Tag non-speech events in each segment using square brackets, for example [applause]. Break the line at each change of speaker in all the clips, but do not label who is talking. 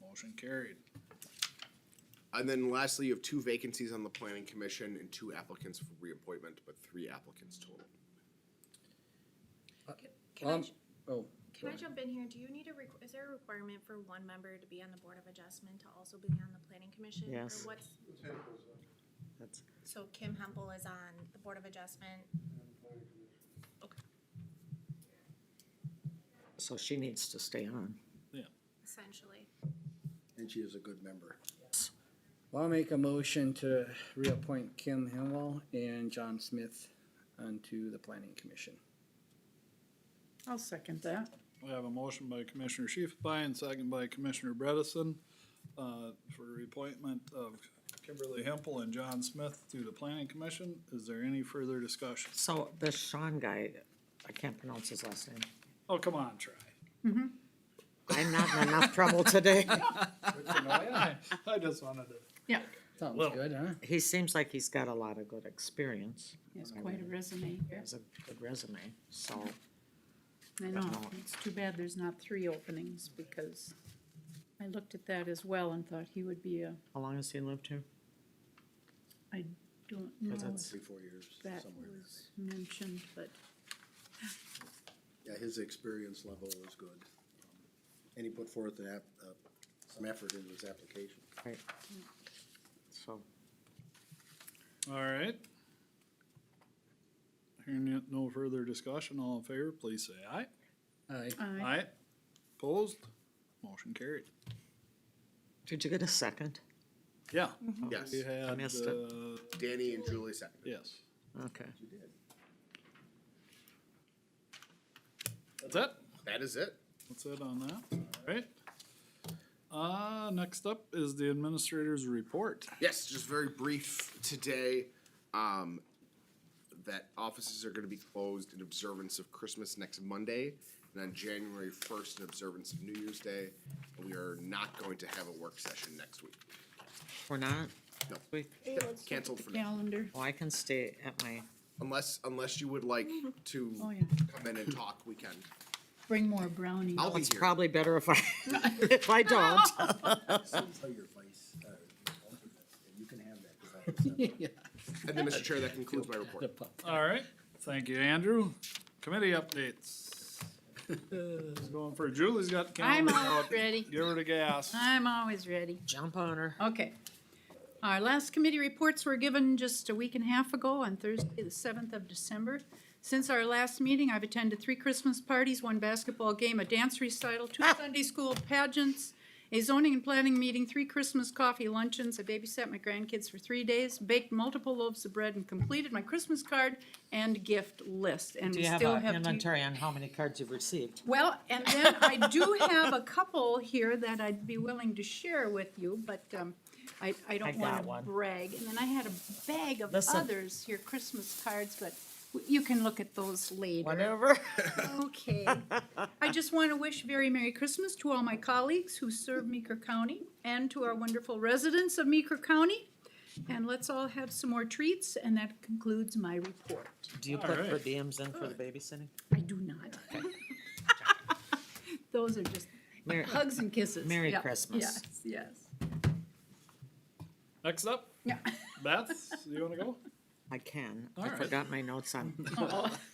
Motion carried.
And then lastly, you have two vacancies on the planning commission and two applicants for reappointment, but three applicants total.
Can I,
Um,
ju-
Oh,
can I
ahead.
jump in here? Do you need a, requ- is there a requirement for one member to be on the Board of Adjustment to also be on the Planning Commission? Or
Yes.
what's-
That's,
So Kim Hempel is on the Board of Adjustment.
so she needs to stay on.
Essentially.
And she is a good member.
Well, I'll make a motion to reappoint Kim Hemwell and John Smith onto the planning commission.
I'll second that.
We have a motion by Commissioner Shifelbein and second by Commissioner Bredesen, uh, for the appointment of Kimberly Hempel and John Smith to the planning commission. Is there any further discussion?
So this Sean guy, I can't pronounce his last name.
Oh, come on, try.
I'm not in enough trouble today.
I I just wanted to.
Yeah,
Sounds
Well-
good, huh?
[laughs] He seems like he's got a lot of good experience.
he has quite a resume
He
here.
has a good resume, so
I know,
No.
it's too bad there's not three openings because I looked at that as well and thought he would be a,
how long has he lived here?
I don't know if
that's-
Three, four years,
that
somewhere.
was mentioned, but
Yeah, his experience level is good. Um, And he put forth an app, uh, some effort into his application.
Right. So,
All right. Hearing no- no further discussion, all in favor, please say aye.
Aye.
I,
Aye. Opposed? Motion carried.
did you get a second?
Yeah.
Yes,
We had,
missed it.
uh,
Danny and Julie seconded.
yes.
Okay.
You did.
That's it.
That is it.
That's it on that. All right. Uh, next up is the administrator's report.
Yes, just very brief today. Um, that offices are gonna be closed in observance of Christmas next Monday, and on January first in observance of New Year's Day. And we are not going to have a work session next week.
We're not?
No.
We-
Cancelled for now,
calendar,
Oh, I can stay at my,
unless, unless you would like to
oh yeah,
come in and talk, we can.
bring more brownies.
I'll be
it's
here.
probably better if I, [laughs] if I don't.
Tell your vice, uh, alternate, and you can have that. 'cause I accept
[laughs]
it.
Yeah.
And then, Mr. Chair, that concludes my report.
The pup.
All right. Thank you, Andrew. Committee updates. It's Going for Julie's got the
I'm
calendar
all
out.
ready.
Give her the gas.
I'm always ready.
[laughs] Jump on her.
Okay. Our last committee reports were given just a week and a half ago on Thursday, the seventh of December. Since our last meeting, I've attended three Christmas parties, one basketball game, a dance recital, two
Ah!
Sunday school pageants, a zoning and planning meeting, three Christmas coffee luncheons, I babysat my grandkids for three days, baked multiple loaves of bread, and completed my Christmas card and gift list. And
Do
we
you have
still
an
have. to-
inventory on how many cards you've received?
well, and then I do have a couple here that I'd be willing to share with you, but um, I, I
I
don't
got
want to
one.
brag. And then I had a bag of
Listen.
others here, Christmas cards, but w- you can look at those later.
Whatever.
Okay.
[laughs]
I just want to wish very Merry Christmas to all my colleagues who serve Meeker County and to our wonderful residents of Meeker County. And let's all have some more treats, and that concludes my report.
Do you
All
put
right.
per diems in for the babysitting?
I do not. [laughs] Those are just
Mary-
[laughs] hugs and kisses.
Merry
Yeah,
Christmas.
Yes, yes.
Next up,
[laughs] Yeah.
Beth, you wanna go?
I can.
All
I
right.
forgot my
[laughs]
notes on,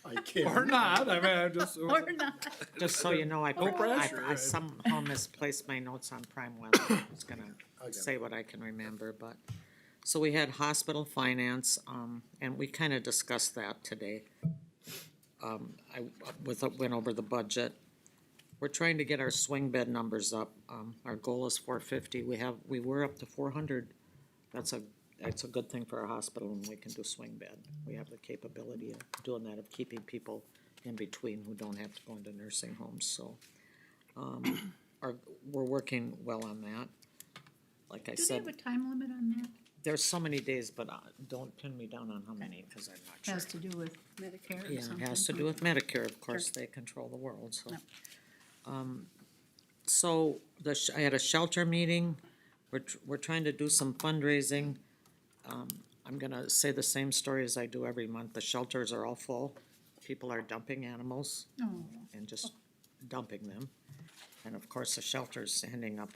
I can't.
Or not, I mean, I just.
Or not.
just so you know, I,
No
I,
pressure.
I somehow misplaced my notes on prime weather. I was gonna
I got it.
say what I can remember, but. So we had hospital finance, um, and we kinda discussed that today. Um, I, with, went over the budget. We're trying to get our swing bed numbers up. Um, our goal is four fifty. We have, we were up to four hundred. That's a, that's a good thing for our hospital and we can do swing bed. We have the capability of doing that, of keeping people in between who don't have to go into nursing homes, so. um, [coughs] Are, we're working well on that. Like I
Do they have a
said,
time limit on that?
there's so many days, but uh, don't pin me down on how many, cause I'm not sure.
Has to do with Medicare or
Yeah,
something?
it has to do with Medicare, of course, they control the world, so.
Yep.
Um, So, the, sh- I had a shelter meeting, we're, tr- we're trying to do some fundraising. Um, I'm gonna say the same story as I do every month, the shelters are all full, people are dumping animals
Oh.
and just dumping them. And of course, the shelter's ending up